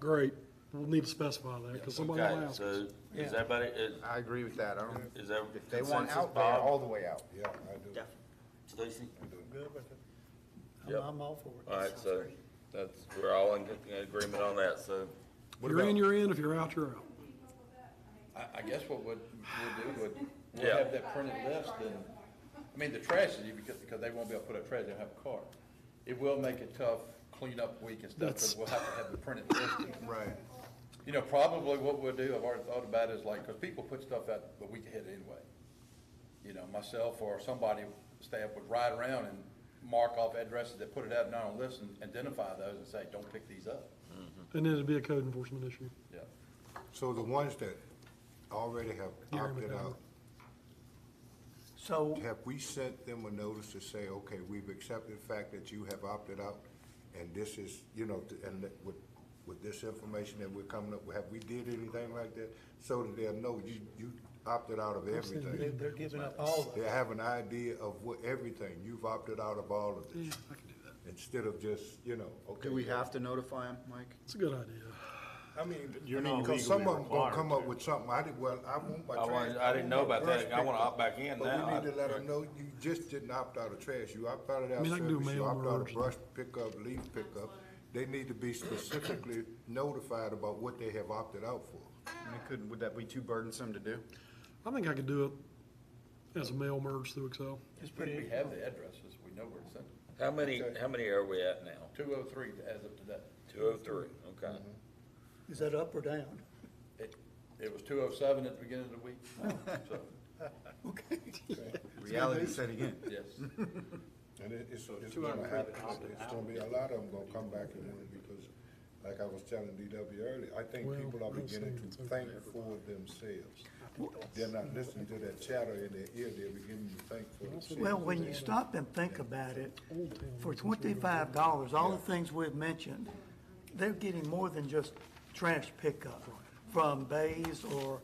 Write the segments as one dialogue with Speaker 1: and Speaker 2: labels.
Speaker 1: Great, we'll need to specify that, because somebody will
Speaker 2: Okay,
Speaker 1: ask
Speaker 2: so
Speaker 1: us.
Speaker 2: is everybody, is-
Speaker 3: I agree with that, I don't,
Speaker 2: is there
Speaker 3: if they want
Speaker 2: consensus,
Speaker 3: out there, all
Speaker 2: Bob,
Speaker 3: the way out.
Speaker 4: Yeah, I do.
Speaker 2: Stacy?
Speaker 5: Good with it. I'm,
Speaker 2: Yep.
Speaker 5: I'm all for it.
Speaker 2: All right, so that's, we're all in in agreement on that, so.
Speaker 1: If you're in, you're in, if you're out, you're out.
Speaker 6: I, I guess what would, we'll do would, we'll
Speaker 2: Yeah.
Speaker 6: have that printed list and, I mean, the trash is, because, because they won't be able to put up trash, they'll have a cart. It will make it tough cleanup week and stuff,
Speaker 1: That's-
Speaker 6: because we'll have to have the printed list. and-
Speaker 3: Right.
Speaker 6: You know, probably what we'll do, I've already thought about is like, because people put stuff out the week ahead anyway. You know, myself or somebody, staff would ride around and mark off addresses that put it out now on lists and identify those and say, don't pick these up.
Speaker 1: And then it'd be a code enforcement issue.
Speaker 6: Yeah.
Speaker 4: So the ones that already have
Speaker 1: Gary
Speaker 4: opted out,
Speaker 5: So,
Speaker 4: have we sent them a notice to say, okay, we've accepted the fact that you have opted out? And this is, you know, th- and that with, with this information that we're coming up, with, have we did anything like that? So that they'll know you, you opted out of
Speaker 5: they're,
Speaker 4: everything.
Speaker 5: they're giving up all of
Speaker 4: They
Speaker 5: it.
Speaker 4: have an idea of what, everything, you've opted out of all of this,
Speaker 1: I can do that.
Speaker 4: instead of just, you know, okay.
Speaker 3: Do we have to notify them, Mike?
Speaker 1: It's a good idea.
Speaker 4: I mean, I
Speaker 7: You're
Speaker 4: mean,
Speaker 7: not
Speaker 4: because some of
Speaker 7: legally
Speaker 4: them gonna
Speaker 7: required
Speaker 4: come up
Speaker 7: to.
Speaker 4: with something, I did, well, I want my
Speaker 2: I
Speaker 4: trash.
Speaker 2: wasn't- I didn't know
Speaker 4: want my
Speaker 2: about that.
Speaker 4: trash
Speaker 2: I wanna
Speaker 4: picked up.
Speaker 2: opt back in now.
Speaker 4: But we need
Speaker 2: I-
Speaker 4: to let them know, you just didn't opt out of trash, you opted out of
Speaker 1: I
Speaker 4: that
Speaker 1: mean, I can do
Speaker 4: service, you
Speaker 1: mail
Speaker 4: opted out
Speaker 1: orders.
Speaker 4: of brush pickup, leaf pickup. They need to be specifically notified about what they have opted out for.
Speaker 3: I mean, couldn't, would that be too burdensome to do?
Speaker 1: I think I could do it as a mail merge through Excel.
Speaker 5: Just put
Speaker 6: We
Speaker 5: it,
Speaker 6: have the addresses, we know where to send them.
Speaker 2: How many, how many are we at now?
Speaker 6: Two oh three as of today.
Speaker 2: Two
Speaker 5: Mm-hmm.
Speaker 2: oh three, okay.
Speaker 5: is that up or down?
Speaker 6: It, it was two oh seven at the beginning of the week, so,
Speaker 5: Okay.
Speaker 3: Reality set again.
Speaker 6: yes.
Speaker 4: And it, it's, it's gonna happen, it's gonna be, a lot of them gonna come back and want it, because, like I was telling DW earlier, I think
Speaker 1: Well,
Speaker 4: people are
Speaker 1: I'm
Speaker 4: beginning
Speaker 1: saying it's
Speaker 4: to
Speaker 1: okay
Speaker 4: think for themselves. They're not listening to that chatter in their ear, they're beginning to think for themselves.
Speaker 5: Well, when you stop and think about it, for twenty-five dollars, all the things we've mentioned, they're getting more than just trash pickup from Bays or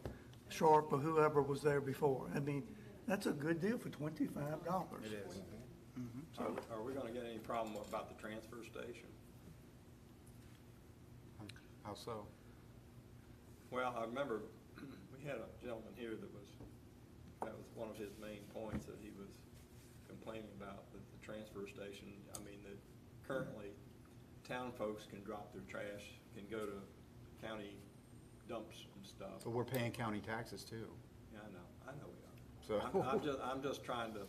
Speaker 5: Sharp or whoever was there before. I mean, that's a good deal for twenty-five dollars. It is.
Speaker 8: Are are we gonna get any problem about the transfer station?
Speaker 3: How so?
Speaker 8: Well, I remember we had a gentleman here that was, that was one of his main points that he was complaining about, that the transfer station, I mean, that currently town folks can drop their trash, can go to county dumps and stuff.
Speaker 3: But we're paying county taxes too.
Speaker 8: Yeah, I know, I know we
Speaker 3: So-
Speaker 8: are. I'm, I'm just, I'm just trying to,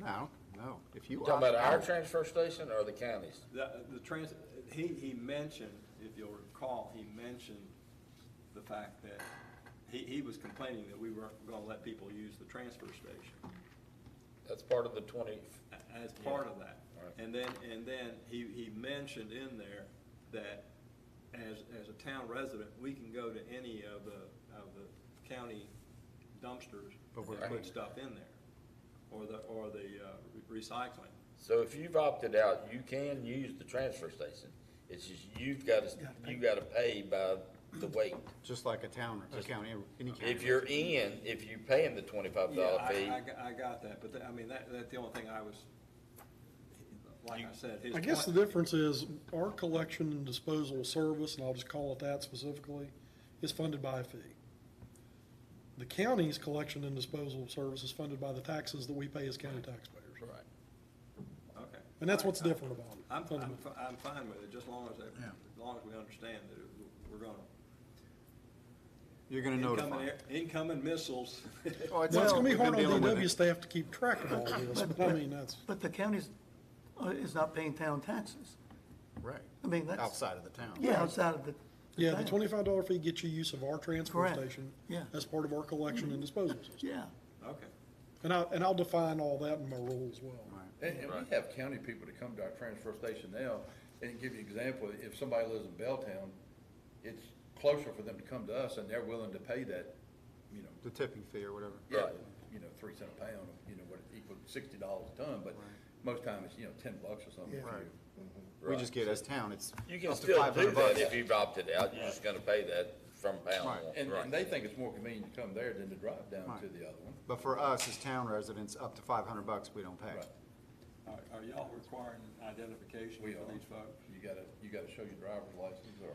Speaker 3: No, no, if you.
Speaker 2: You talking about
Speaker 3: opt
Speaker 2: our
Speaker 3: out-
Speaker 2: transfer station or the county's?
Speaker 8: The, the trans, he, he mentioned, if you'll recall, he mentioned the fact that he, he was complaining that we weren't gonna let people use the transfer station
Speaker 2: That's part of the twenty,
Speaker 8: a- as part of that.
Speaker 2: Alright.
Speaker 8: And then, and then he, he mentioned in there that as, as a town resident, we can go to any of the, of the county dumpsters
Speaker 3: But we're
Speaker 8: and put
Speaker 3: putting-
Speaker 8: stuff in there, or the, or the, uh, re- recycling.
Speaker 2: so if you've opted out, you can use the transfer station. It's just you've got to, you got to pay by the weight.
Speaker 3: Just like a town, a county, any county.
Speaker 2: If you're e- in, if you're paying the twenty-five
Speaker 8: Yeah,
Speaker 2: dollar
Speaker 8: I-
Speaker 2: fee,
Speaker 8: I, got- I got that, but that- I mean, that, that's the only thing I was, like I said, his
Speaker 1: I guess the
Speaker 8: point-
Speaker 1: difference is our collection and disposal service, and I'll just call it that specifically, is funded by a fee. The county's collection and disposal service is funded by the taxes that we pay as county taxpayers. Right.
Speaker 8: Okay.
Speaker 1: And that's what's
Speaker 8: All right.
Speaker 1: different about it.
Speaker 8: I'm, I'm, fi- I'm fine with it, just long as, that- as long as we understand that it- we're gonna.
Speaker 3: You're gonna
Speaker 8: incoming
Speaker 3: notify.
Speaker 8: air- Incoming missiles.
Speaker 3: Well,
Speaker 1: Well, it's gonna be
Speaker 3: we've been
Speaker 1: hard on
Speaker 3: dealing with
Speaker 1: DW
Speaker 3: it.
Speaker 1: staff to keep track of all this, but I mean, that's,
Speaker 5: But the county's, uh, is not paying town taxes.
Speaker 3: Right.
Speaker 5: I mean, that's-
Speaker 3: Outside of the town.
Speaker 5: Yeah, outside of the.
Speaker 1: yeah, the
Speaker 5: town.
Speaker 1: twenty-five dollar fee gets you use of our transfer
Speaker 5: Correct.
Speaker 1: station
Speaker 5: Yeah.
Speaker 1: as part of our collection and disposal system.
Speaker 5: Yeah.
Speaker 8: Okay.
Speaker 1: And I, and I'll define all that in my role as well.
Speaker 6: And, and we have county people to come to our transfer station now, and give you an example, if somebody lives in Belltown, it's closer for them to come to us, and they're willing to pay that, you know,
Speaker 3: The tipping fee or whatever.
Speaker 6: yeah, you know, three cent a pound, you know, what it equals sixty dollars a ton, but most times it's, you know, ten bucks or something. if
Speaker 5: Yeah.
Speaker 6: you-
Speaker 3: We just get as town, it's.
Speaker 2: you can
Speaker 3: up to
Speaker 2: still do
Speaker 3: 500
Speaker 2: that
Speaker 3: bucks.
Speaker 2: if you've opted out. You're just going to pay that from pound
Speaker 3: Right.
Speaker 2: one.
Speaker 6: And,
Speaker 2: Right.
Speaker 6: and they think it's more convenient to come there than to drive down to
Speaker 3: Right.
Speaker 6: the other one.
Speaker 3: But for us, as town residents, up to five hundred bucks, we don't pay.
Speaker 6: Right.
Speaker 8: Are, are y'all requiring identification
Speaker 6: We are,
Speaker 8: for these folks?
Speaker 6: you gotta, you gotta show your driver's license or